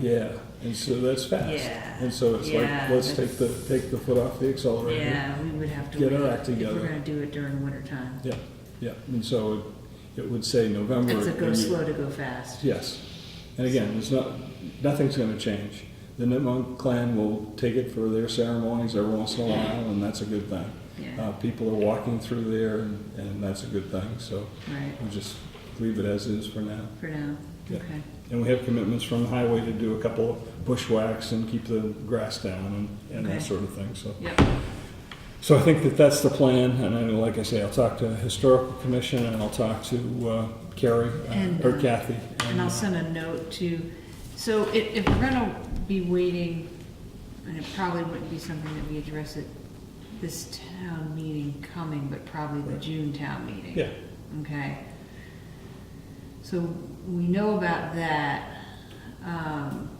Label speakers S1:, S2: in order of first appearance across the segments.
S1: Yeah, and so that's fast.
S2: Yeah,
S1: And so it's
S2: yeah,
S1: like, let's take
S2: that's-
S1: the, take the foot off the accelerator.
S2: Yeah, we would have to.
S1: Get our
S2: wait
S1: act
S2: If
S1: together.
S2: we're gonna do it during winter time.
S1: Yeah, yeah, and so it, it would say November.
S2: It's a go
S1: and you-
S2: slow to go fast.
S1: Yes, and again, it's not, nothing's gonna change. The Nipmuc clan will take it for their ceremonies every once in a while, and that's a good thing.
S2: Yeah,
S1: Uh, people are walking through there, and, and that's a good thing, so
S2: right,
S1: we'll just leave it as is for now.
S2: for now,
S1: Yeah.
S2: okay.
S1: And we have commitments from the highway to do a couple of bushwhacks and keep the grass down and, and that
S2: Okay.
S1: sort of thing, so.
S2: Yep,
S1: So I think that that's the plan, and I, like I say, I'll talk to Historical Commission, and I'll talk to uh, Carrie, uh,
S2: And,
S1: or
S2: uh,
S1: Kathy.
S2: and I'll send a note to, so if, if we're gonna be waiting, and it probably wouldn't be something that we address at this town meeting coming, but probably the
S1: Right.
S2: June town meeting.
S1: Yeah,
S2: Okay. So we know about that. Um,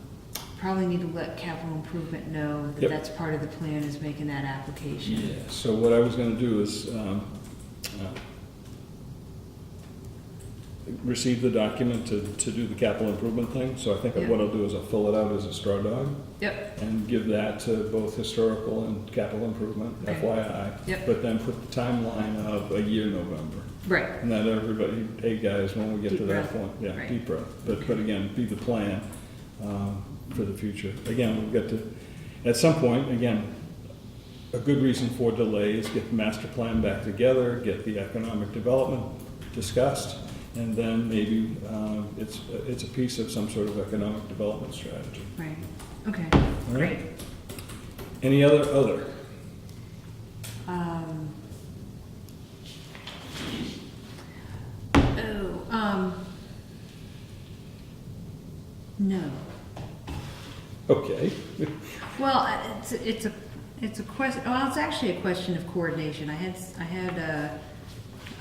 S2: Probably need to let capital improvement know that
S1: Yep.
S2: that's part of the plan is making that application.
S1: yeah, so what I was gonna do is, um, uh, receive the document to, to do the capital improvement thing, so I think that what I'll do is I'll fill it out as a straw dog,
S2: Yep,
S1: and give that to both Historical and Capital Improvement,
S2: Okay.
S1: FYI.
S2: Yep.
S1: But then put the timeline of a year November.
S2: right,
S1: Not everybody, hey guys, when we get to
S2: Deep
S1: that
S2: breath.
S1: point, yeah,
S2: Right.
S1: deep breath. But, but again, be the plan um, for the future. Again, we've got to, at some point, again, a good reason for delay is get the master plan back together, get the economic development discussed, and then maybe um, it's, it's a piece of some sort of economic development strategy.
S2: right, okay,
S1: All right?
S2: great.
S1: Any other, other?
S2: Um, Oh, um, no.
S1: Okay.
S2: Well, I- it's, it's a, it's a question, well, it's actually a question of coordination. I had, I had, uh,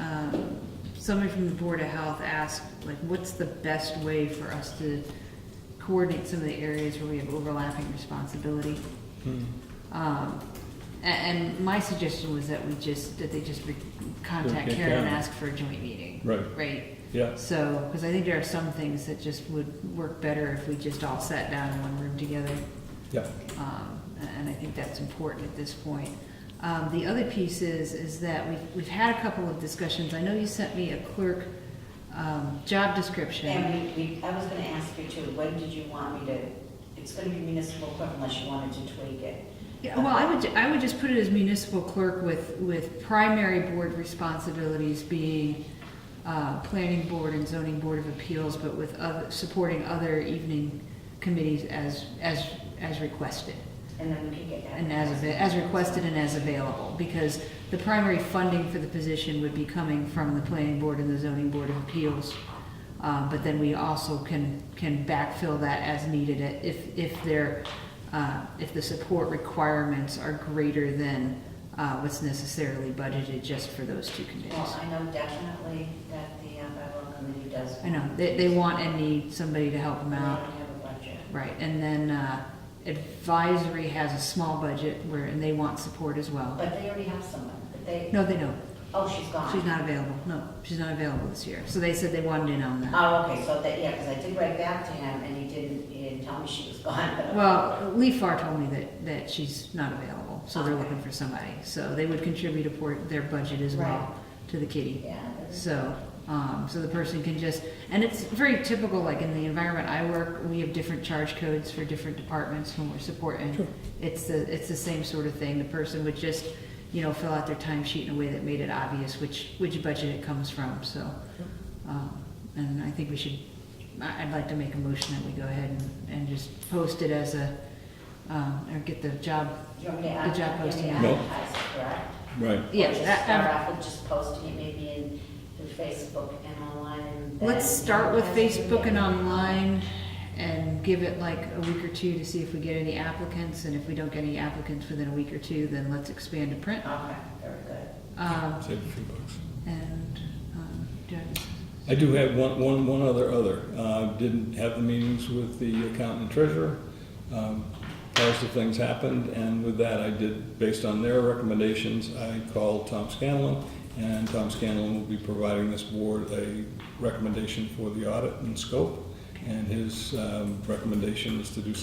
S2: um, somebody from the Board of Health ask, like, what's the best way for us to coordinate some of the areas where we have overlapping responsibility?
S1: Hmm.
S2: Um, a- and, and my suggestion was that we just, that they just re- contact
S1: Okay,
S2: Karen and
S1: Karen.
S2: ask for a joint meeting.
S1: Right,
S2: Right?
S1: yeah,
S2: So, because I think there are some things that just would work better if we just all sat down in one room together.
S1: yeah.
S2: Um, and I think that's important at this point. Um, the other piece is, is that we've, we've had a couple of discussions. I know you sent me a clerk, um, job description.
S3: And we, we, I was gonna ask you too, when did you want me to, it's gonna be municipal clerk unless you wanted to tweak it.
S2: Yeah, well, I would, ju- I would just put it as municipal clerk with, with primary board responsibilities being, uh, planning board and zoning board of appeals, but with other, supporting other evening committees as, as, as requested.
S3: And then we can get that.
S2: And as, avai- as requested and as available, because the primary funding for the position would be coming from the planning board and the zoning board of appeals. Uh, but then we also can, can backfill that as needed if, if there, uh, if the support requirements are greater than, uh, what's necessarily budgeted just for those two committees.
S3: Well, I know definitely that the uh, bylaw committee does.
S2: I know, they, they want and need somebody to help them
S3: They
S2: out.
S3: don't have a budget.
S2: Right, and then, uh, advisory has a small budget where, and they want support as well.
S3: But they already have someone, but they,
S2: No, they don't.
S3: oh, she's gone.
S2: She's not available, no, she's not available this year, so they said they wanted in on that.
S3: Oh, okay, so that, yeah, because I did write back to him and he didn't, he didn't tell me she was gone, but.
S2: Well, Lee Farr told me that, that she's not available, so they're looking for somebody, so they would contribute a port, their budget as well to the kitty.
S3: Yeah.
S2: So, um, so the person can just, and it's very typical, like in the environment I work, we have different charge codes for different departments when we're
S1: Sure.
S2: supporting. It's the, it's the same sort of thing, the person would just, you know, fill out their timesheet in a way that made it obvious which, which budget it comes from, so. um, And I think we should, I- I'd like to make a motion that we go ahead and, and just post it as a, um, or get the job,
S3: You want me to
S2: The
S3: ad-
S2: job
S3: you want me to
S2: posting.
S1: No.
S3: advertise it, correct?
S1: Right.
S2: yes.
S3: Or
S2: that-
S3: just start off with just posting it maybe in, through Facebook and online and.
S2: Let's
S3: then-
S2: start with Facebook and online and give it like a week or two to see if we get any applicants. And if we don't get any applicants within a week or two, then let's expand to print.
S3: Okay, very good.
S2: Um,
S1: Save a few bucks.
S2: and, um, do I-
S1: I do have one, one, one other, other. Uh, didn't have the meetings with the accountant and treasurer. Um, Positive things happened, and with that, I did, based on their recommendations, I called Tom Scanlon, and Tom Scanlon will be providing this board a recommendation for the audit and scope. and his um, recommendation is to do